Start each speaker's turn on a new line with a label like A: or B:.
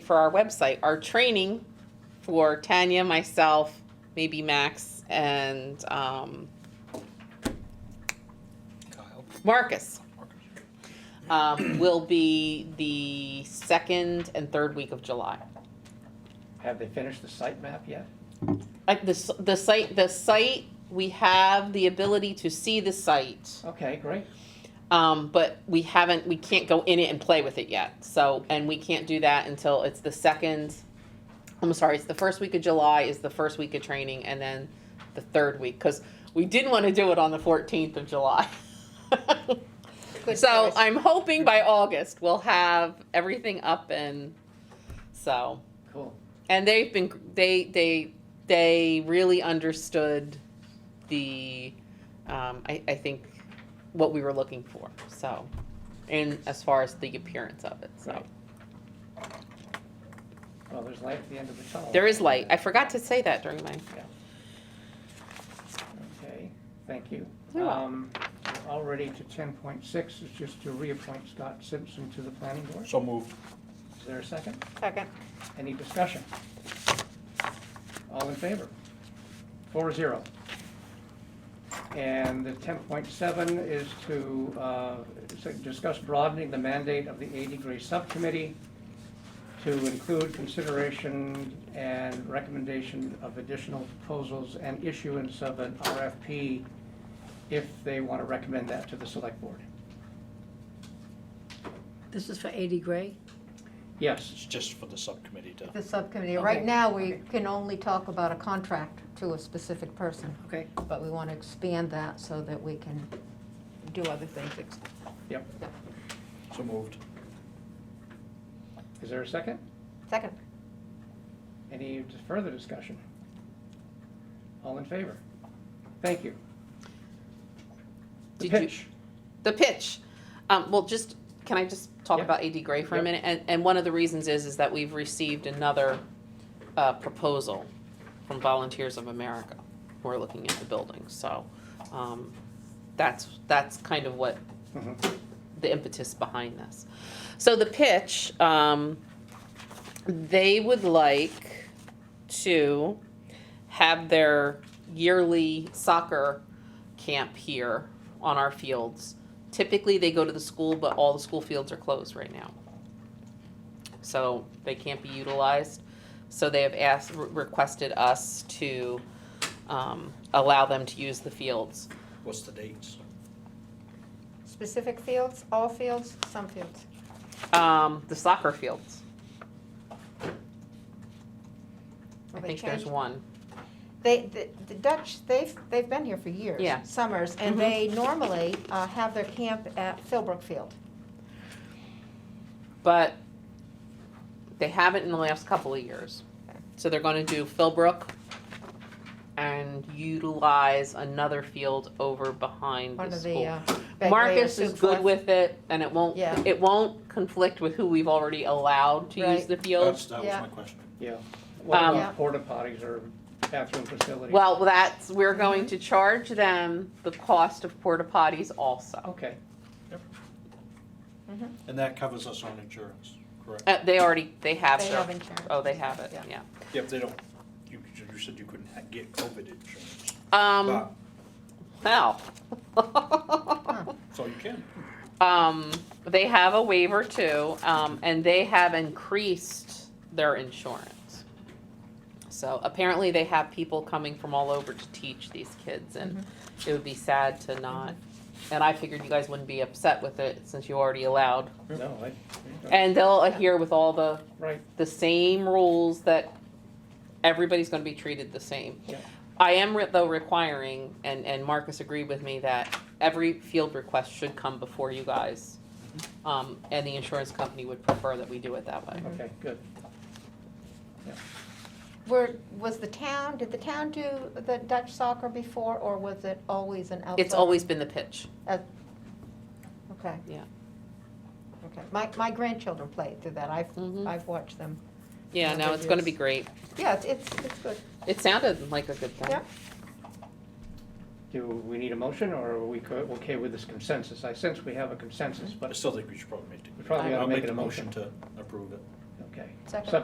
A: for our website, our training for Tanya, myself, maybe Max, and um,
B: Kyle.
A: Marcus um, will be the second and third week of July.
C: Have they finished the site map yet?
A: Uh, the, s- the site, the site, we have the ability to see the site,
C: Okay, great.
A: um, but we haven't, we can't go in it and play with it yet. So, and we can't do that until it's the second, I'm sorry, it's the first week of July is the first week of training and then the third week, because we didn't want to do it on the 14th of July.
D: Good
A: So
D: choice.
A: I'm hoping by August we'll have everything up and so
C: Cool.
A: and they've been they they they really understood the um, I, I think what we were looking for so and as far as the appearance of it so
C: Right. Well, there's light at the end of the tunnel.
A: there is light i forgot to say that during my
C: Okay, thank you.
A: You're
C: Um, we're All ready to ten point six is just to reappoint Scott Simpson to the planning board.
B: So moved.
C: Is there a second?
D: Second.
C: Any discussion? All in favor? Four zero. And the ten point seven is to, uh, s- discuss broadening the mandate of the eighty-degree subcommittee to include consideration and recommendation of additional proposals and issuance of an RFP if they want to recommend that to the select board.
E: This is for 80 Gray?
C: Yes,
B: It's just for the subcommittee to.
D: The subcommittee, right
E: Okay.
D: now, we can only talk about a contract to a specific person,
E: Okay.
D: but we want to expand that so that we can do other things. Ex-
C: yep.
B: So moved.
C: Is there a second?
D: Second.
C: Any further discussion? All in favor? Thank you. The
A: Did you-
C: pitch.
A: the pitch. Um, well, just, can I just talk
C: Yeah.
A: about AD Gray for a
C: Yeah.
A: minute? And, and one of the reasons is, is that we've received another, uh, proposal from Volunteers of America who are looking at the building, so, um, that's, that's kind of what
C: Mhm.
A: the impetus behind this. So the pitch, um, they would like to have their yearly soccer camp here on our fields. Typically, they go to the school, but all the school fields are closed right now. So they can't be utilized. So they have asked, re- requested us to, um, allow them to use the fields.
B: What's the dates?
D: Specific fields, all fields, some fields.
A: Um, the soccer fields. I
D: Have they
A: think there's
D: changed?
A: one.
D: They, the- the Dutch, they've, they've been here for years.
A: Yeah.
D: Summers,
A: Mhm.
D: and they normally uh, have their camp at Philbrook Field.
A: but they haven't in the last couple of years. So they're going to do Philbrook and utilize another field over behind
D: One
A: the
D: of the.
A: school.
D: uh, Begley or
A: Marcus is
D: Sioux
A: good
D: Falls.
A: with it, and it won't
D: Yeah.
A: it won't conflict with who we've already allowed to use
D: Right.
A: the field.
B: That's, that was
D: Yeah.
B: my question.
C: Yeah. What
A: Um,
D: Yeah.
C: about porta potties or bathroom facilities?
A: Well, that's we're going to charge them the cost of porta potties
D: Oh.
A: also.
C: Okay,
B: And that covers us on insurance, correct?
A: Uh, they already they have
D: They
A: their-
D: have insurance.
A: oh they have it yeah.
D: Yeah.
B: Yeah, if they don't, you, you said you couldn't ha- get COVID insurance.
A: Um,
B: But,
A: wow.
B: so you can.
A: Um, they have a waiver too, um, and they have increased their insurance. So apparently they have people coming from all over to teach these kids and
D: Mm-hmm.
A: it would be sad to not. And I figured you guys wouldn't be upset with it since you already allowed.
C: no, I.
A: And they'll adhere with all the,
C: Right,
A: the same rules that everybody's gonna be treated the same.
C: Yeah.
A: I am re- though requiring, and, and Marcus agreed with me, that every field request should come before you guys. Um, and the insurance company would prefer that we do it that way.
C: okay, good.
D: Were, was the town, did the town do the Dutch soccer before, or was it always an outfield?
A: It's always been the pitch.
D: Okay.
A: Yeah.
D: Okay, my, my grandchildren play through that, I've,
A: Mhm.
D: I've watched them.
A: Yeah,
D: Yeah,
A: no,
D: good
A: it's gonna be
D: deals.
A: great.
D: Yeah, it's, it's it's good.
A: It sounded like a good thing.
D: Yeah.
C: Do we need a motion or are we co- okay with this consensus? I sense we have a consensus,
B: But I
C: but,
B: still think we should probably make. the-
C: We probably
B: I'll
C: gotta make it
B: the
C: a motion.
B: To approve it.
C: okay. okay.
D: Second.
C: Sub-